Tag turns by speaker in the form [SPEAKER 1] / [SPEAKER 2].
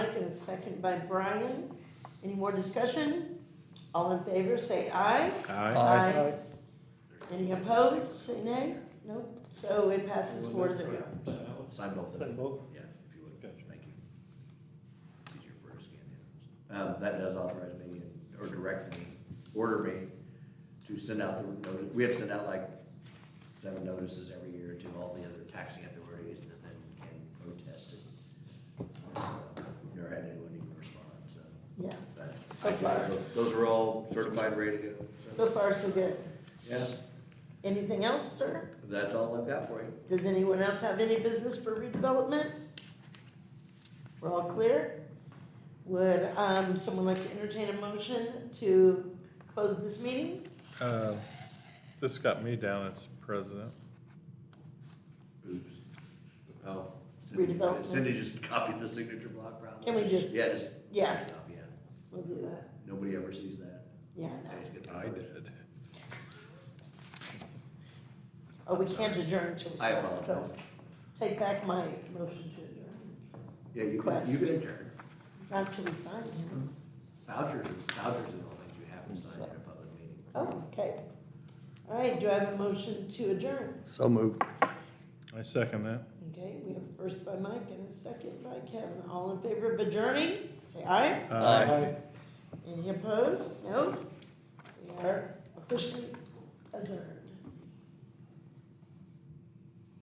[SPEAKER 1] a second by Brian. Any more discussion? All in favor, say aye.
[SPEAKER 2] Aye.
[SPEAKER 1] Aye. Any opposed, say nay? Nope, so it passes four zero.
[SPEAKER 3] Sign both of
[SPEAKER 2] Send
[SPEAKER 3] them,
[SPEAKER 2] both.
[SPEAKER 3] yeah, if you would,
[SPEAKER 2] Gotcha.
[SPEAKER 3] thank you. Easier for her to scan the others. Um, that does authorize me, or direct me, order me to send out the, noti- we have to send out like seven notices every year to all the other taxing authorities that then can protest it. Uh, We've Never had anyone even respond, so.
[SPEAKER 1] Yeah,
[SPEAKER 3] but
[SPEAKER 1] So
[SPEAKER 3] I got
[SPEAKER 1] far.
[SPEAKER 3] those- Those are all certified, ready to go.
[SPEAKER 1] so far so good.
[SPEAKER 3] Yeah,
[SPEAKER 1] Anything else, sir?
[SPEAKER 3] that's all I've got for you.
[SPEAKER 1] Does anyone else have any business for redevelopment? We're all clear? Would, um, someone like to entertain a motion to close this meeting?
[SPEAKER 2] Uh, This got me down as president.
[SPEAKER 3] Oops. Oh. Cindy-
[SPEAKER 1] Redevelopment.
[SPEAKER 3] Cindy just copied the signature block probably.
[SPEAKER 1] Can we just-
[SPEAKER 3] Yeah, just.
[SPEAKER 1] yeah.
[SPEAKER 3] text off, yeah.
[SPEAKER 1] We'll do that.
[SPEAKER 3] Nobody ever sees that.
[SPEAKER 1] Yeah,
[SPEAKER 3] They
[SPEAKER 1] no.
[SPEAKER 3] just get the
[SPEAKER 2] I
[SPEAKER 3] numbers.
[SPEAKER 2] did.
[SPEAKER 1] Oh, we can't adjourn till we
[SPEAKER 3] I
[SPEAKER 1] start, so
[SPEAKER 3] apologize.
[SPEAKER 1] take back my motion to adjourn.
[SPEAKER 3] Yeah, you can, you
[SPEAKER 1] Request.
[SPEAKER 3] can adjourn.
[SPEAKER 1] Not till we sign him.
[SPEAKER 3] Vouchers, vouchers and all things you have to sign in a public meeting.
[SPEAKER 1] Oh, okay. All right, do I have a motion to adjourn?
[SPEAKER 4] So moved.
[SPEAKER 2] I second that.
[SPEAKER 1] Okay, we have first by Mike and a second by Kevin. All in favor of adjourning? Say aye. Any opposed? No? We are officially adjourned.